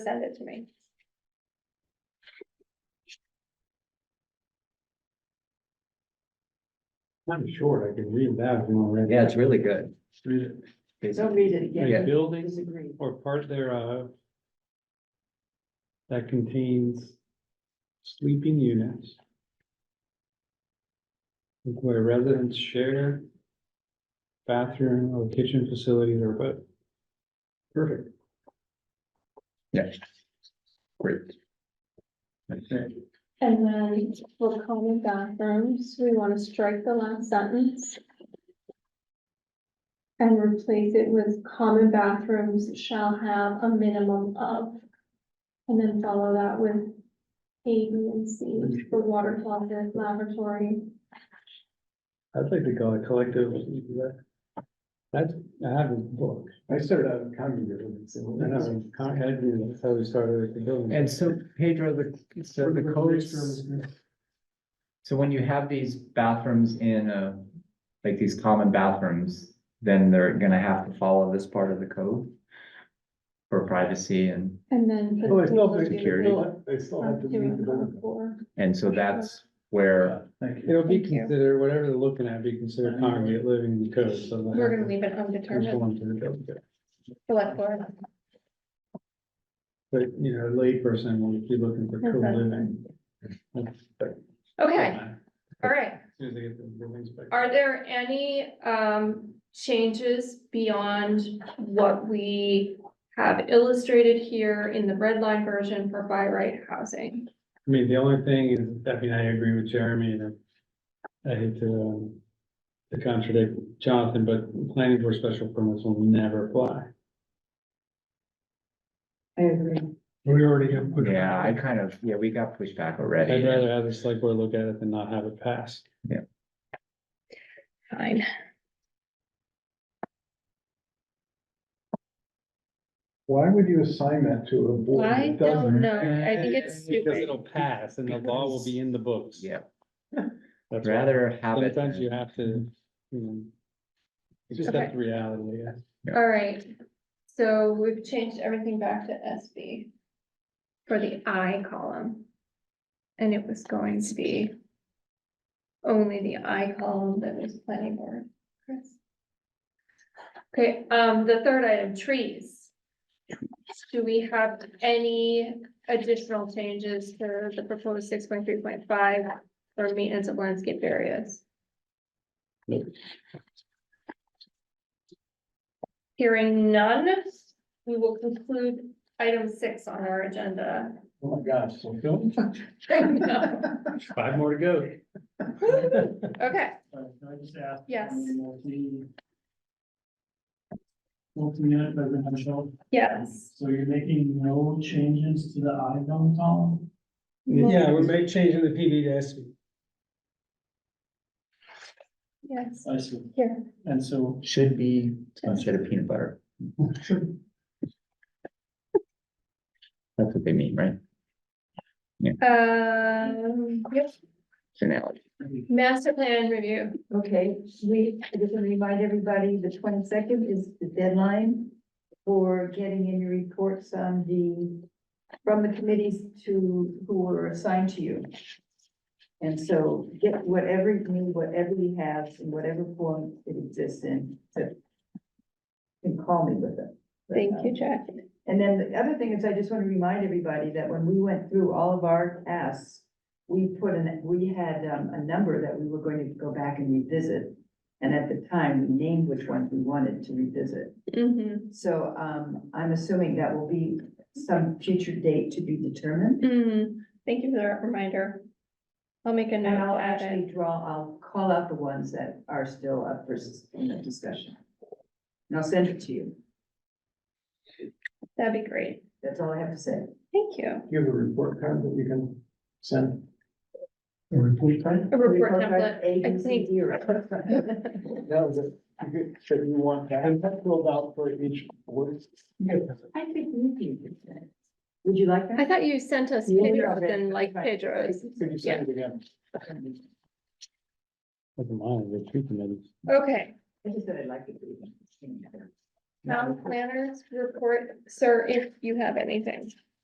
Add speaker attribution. Speaker 1: send it to me.
Speaker 2: Kind of short, I can read that if you want to read.
Speaker 3: Yeah, it's really good.
Speaker 2: Read it.
Speaker 4: Don't read it again.
Speaker 2: A
Speaker 3: Yeah.
Speaker 2: building
Speaker 4: Disagree.
Speaker 2: or part thereof that contains sleeping units where residents share bathroom or kitchen facilities or both. Perfect.
Speaker 3: Yeah. Great.
Speaker 1: And then for common bathrooms, we want to strike the last sentence. And replace it with common bathrooms shall have a minimum of. And then follow that with A, B, and C for water closet, laboratory.
Speaker 2: I'd like to call it collective. That's, I have a book. I started out in common buildings. I know, con- I knew that's how we started with the building.
Speaker 5: And so Pedro, the, so the codes, so when you have these bathrooms in a, like these common bathrooms, then they're gonna have to follow this part of the code for privacy and,
Speaker 1: And then. put
Speaker 2: Oh, it's not
Speaker 1: the-
Speaker 3: security.
Speaker 2: They still have to
Speaker 1: Up to
Speaker 2: read the
Speaker 1: and
Speaker 2: book.
Speaker 1: on for-
Speaker 5: and so that's where,
Speaker 2: It'll be
Speaker 1: Thank you.
Speaker 2: considered, whatever they're looking at, be considered congregate living in the code, so. they'll
Speaker 1: We're
Speaker 2: have
Speaker 1: gonna
Speaker 2: to
Speaker 1: leave it undetermined,
Speaker 2: conform to the code.
Speaker 1: select board.
Speaker 2: But, you know, a layperson will be looking for co-living.
Speaker 1: Okay, all right.
Speaker 2: As soon as they get the building inspector.
Speaker 1: Are there any um changes beyond what we have illustrated here in the red line version for by right housing?
Speaker 2: I mean, the only thing is, I mean, I agree with Jeremy and I I hate to, um, to contradict Jonathan, but planning for special permits will never apply.
Speaker 4: I agree.
Speaker 2: We already have.
Speaker 5: yeah, I kind of, yeah, we got pushed back
Speaker 2: I'd
Speaker 5: already.
Speaker 2: rather have the select board look at it than not have it passed.
Speaker 1: Fine.
Speaker 6: Why would you assign that to a board? that
Speaker 1: I
Speaker 6: doesn't-
Speaker 1: don't know. I think it's
Speaker 2: Because
Speaker 1: stupid.
Speaker 2: it'll pass and the law will be in the books.
Speaker 5: Yeah,
Speaker 2: That's why.
Speaker 5: rather have it.
Speaker 2: Sometimes you have to, you know. It's just
Speaker 1: Okay.
Speaker 2: that reality, yeah.
Speaker 1: All right, so we've changed everything back to SB for the I column. And it was going to be only the I column that was planning board, Chris. Okay, um, the third item, trees. Do we have any additional changes to the proposed six point three point five for maintenance of landscape areas? Hearing none, we will conclude item six on our agenda.
Speaker 6: Oh my gosh, so don't.
Speaker 2: Five more to go.
Speaker 1: Okay,
Speaker 6: Can I just ask?
Speaker 1: Yes.
Speaker 6: Multi-unit residential,
Speaker 1: yes.
Speaker 6: so you're making no changes to the I-zone column?
Speaker 2: Yeah, we're making changing the PD to SB.
Speaker 1: Yes,
Speaker 6: I see.
Speaker 1: Yeah.
Speaker 6: And so.
Speaker 5: Should be instead of peanut butter. That's what they mean, right?
Speaker 1: um, yep,
Speaker 5: It's an analogy.
Speaker 1: master plan review,
Speaker 4: Okay, we, I just want to remind everybody, the twenty-second is the deadline for getting in your reports on the, from the committees to, who were assigned to you. And so get whatever you need, whatever you have, in whatever form it exists in, to, and call me with it.
Speaker 1: thank you, Jack.
Speaker 4: And then the other thing is, I just want to remind everybody that when we went through all of our tasks, we put in, we had um, a number that we were going to go back and revisit. And at the time, we named which ones we wanted to revisit.
Speaker 1: Mm-hmm,
Speaker 4: So um, I'm assuming that will be some future date to be determined.
Speaker 1: mm-hmm. thank you for that reminder. I'll make a note.
Speaker 4: And I'll
Speaker 1: of it.
Speaker 4: actually draw, I'll call out the ones that are still up for s- in the discussion. And I'll send it to you.
Speaker 1: That'd be great,
Speaker 4: That's all I have to say.
Speaker 1: thank you.
Speaker 6: You have a report card that you can send? A report card?
Speaker 1: A report
Speaker 4: Report card,
Speaker 1: template,
Speaker 4: A,
Speaker 1: I
Speaker 4: B, C,
Speaker 1: think.
Speaker 4: D, right?
Speaker 6: That was it. You could- So you want that filled out for each board?
Speaker 4: I think we can do that. Would you like
Speaker 1: I
Speaker 4: that?
Speaker 1: thought you sent us
Speaker 4: Yeah,
Speaker 1: Pedro's
Speaker 4: yeah.
Speaker 1: and like Pedro's.
Speaker 6: Could you send it again?
Speaker 2: Doesn't matter, the tree committees.
Speaker 1: Okay,
Speaker 4: I just said I'd like to do that.
Speaker 1: town planners report, sir, if you have anything.